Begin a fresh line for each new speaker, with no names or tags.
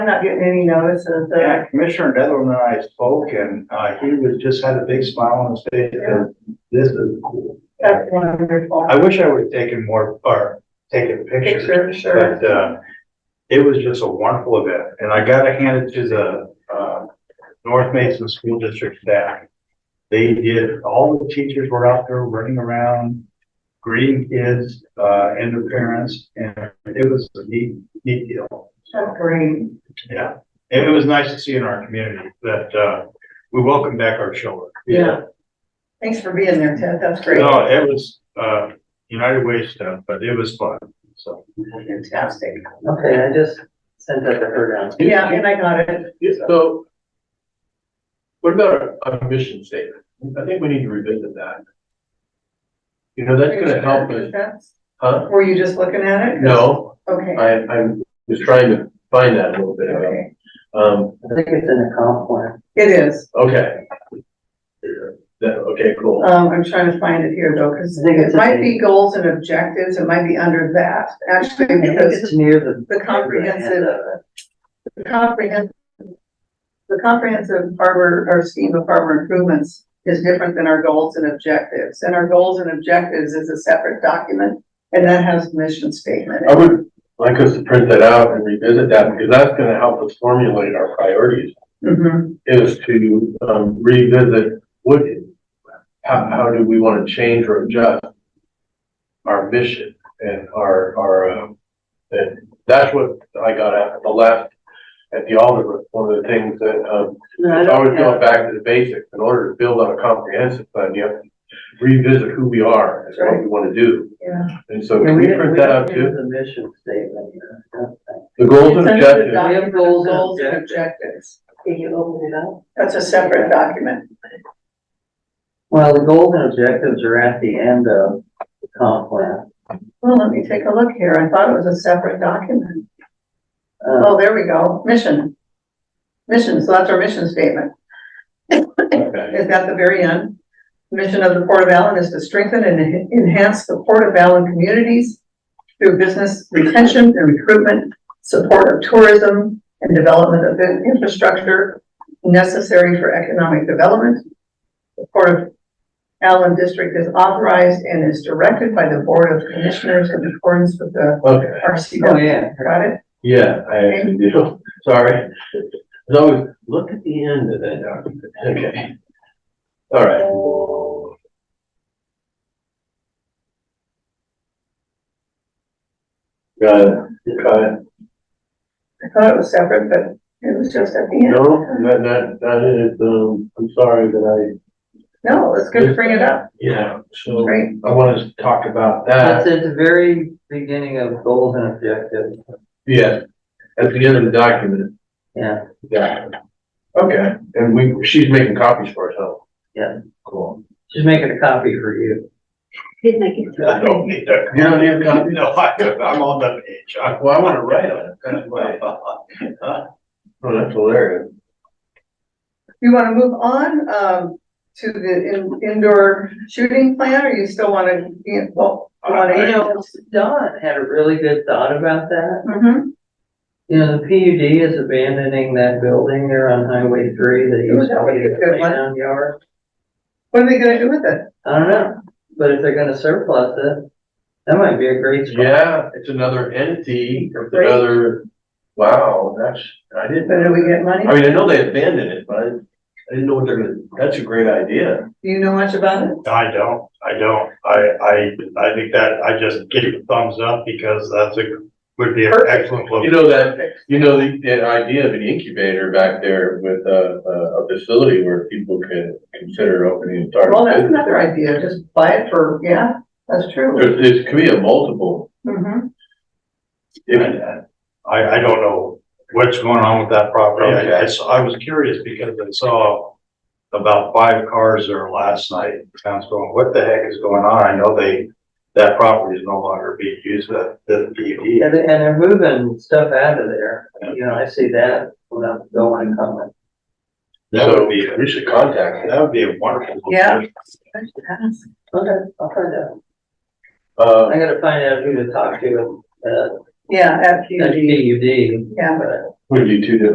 I'm not getting any notice of the,
Yeah, Commissioner Netherland and I spoke and, uh, he was, just had a big smile on his face and this is cool.
that's wonderful.
I wish I would have taken more, or taken pictures.
Picture, sure.
But, uh, it was just a wonderful event, and I gotta hand it to the, uh, North Mason School District staff. They did, all the teachers were out there running around, greeting kids, uh, and their parents, and it was a neat, neat deal.
That's great.
Yeah, and it was nice to see in our community that, uh, we welcome back our children.
Yeah. Thanks for being there, Ted. That's great.
No, it was, uh, United Way stuff, but it was fun, so.
Fantastic.
Okay, I just sent that to her now.
Yeah, and I got it.
So. What about our- our mission statement? I think we need to revisit that. You know, that's gonna help us, huh?
Were you just looking at it?
No,
Okay,
I, I'm just trying to find that a little bit. out.
okay.
Um,
I think it's in the comp plan.
It is.
okay. That, okay, cool.
Um, I'm trying to find it here though, because
I think
it
it's
might
in-
be goals and objectives. It might be under that,
I
actually,
think
because
it's near the.
the comprehensive,
Uh,
the comprehensive, the comprehensive harbor, or scheme of harbor improvements is different than our goals and objectives. And our goals and objectives is a separate document, and that has mission statement.
I would like us to print that out and revisit that because that's gonna help us formulate our priorities
Mhm.
is to, um, revisit what, how, how do we wanna change or adjust our mission and our, our, um, and that's what I got at the last, at the Alder, one of the things that, um,
No, I
it's
don't
always
have,
going back to the basics. In order to build on a comprehensive plan, you have to revisit who we are and what we wanna do.
Yeah.
And so
no,
can
we
we
didn't,
print
we
that
don't
out
do
too?
the mission statement. uh, I don't think.
The goals and
It's under
objectives.
the document of
Goals and
Goals and objectives.
Can you open it up?
That's a separate document.
Well, the goals and objectives are at the end of the comp plan.
Well, let me take a look here. I thought it was a separate document.
Uh,
Oh, there we go. Mission. Mission, so that's our mission statement.
Okay.
Is at the very end. Mission of the Port of Allen is to strengthen and en- enhance the Port of Allen communities through business retention and recruitment, support of tourism, and development of the infrastructure necessary for economic development. The Port of Allen District is authorized and is directed by the Board of Commissioners in accordance with the
Okay,
oh,
RCW.
yeah.
Got it?
yeah, I actually do, sorry. As always, look at the end of that document, okay. All right. Got it, got it.
I thought it was separate, but it was just at the end.
No, that, that, that is, um, I'm sorry that
No, it's good to bring it up.
I, yeah, so
Great.
I want us to talk about that.
That's at the very beginning of goals and objectives.
Yeah, at the end of the document.
Yeah.
Yeah. Okay, and we, she's making copies for us, huh?
Yeah.
Cool.
She's making a copy for you.
Did make it
I
through.
don't need that. You don't need a copy?
No, I, I'm on the page. I-
Well, I wanna write on it, that's why. Oh, that's hilarious.
You want to move on, um, to the in- indoor shooting plan, or you still want to, be in- well, you want
You
to?
know, Don had a really good thought about that.
Mhm.
You know, the PUD is abandoning that building there on Highway three that used
That
to
would
be
be a
a
good one.
playground yard.
What are they gonna do with it?
I don't know, but if they're gonna surplus it, that might be a great spot.
Yeah, it's another entity, it's
Great.
another, wow, that's, I didn't.
So do we get money?
I mean, I know they abandoned it, but I I didn't know what they're gonna, that's a great idea.
Do you know much about it?
I don't, I don't, I, I, I think that, I just give a thumbs up because that's a, would be an excellent look.
You know that, you know, the, the idea of an incubator back there with a, a, a facility where people could consider opening and starting.
Well, that's
business.
another idea, just buy it for, yeah, that's true.
There's, there's, could be a multiple,
Mm-hmm.
if,
I, I don't know what's going on with that property. I, I s- I was curious because I saw about five cars there last night. I was going, what the heck is going on? I know they, that property is no longer being used, the, the
Yeah,
PUD.
they- and they're moving stuff out of there, you know, I see that without going and coming.
That would be,
we should contact them.
that would be a wonderful.
Yeah.
Okay, I'll find out,
Uh,
I gotta find out who to talk to, uh,
Yeah, at
at
PUD,
PUD,
yeah,
but
would be two different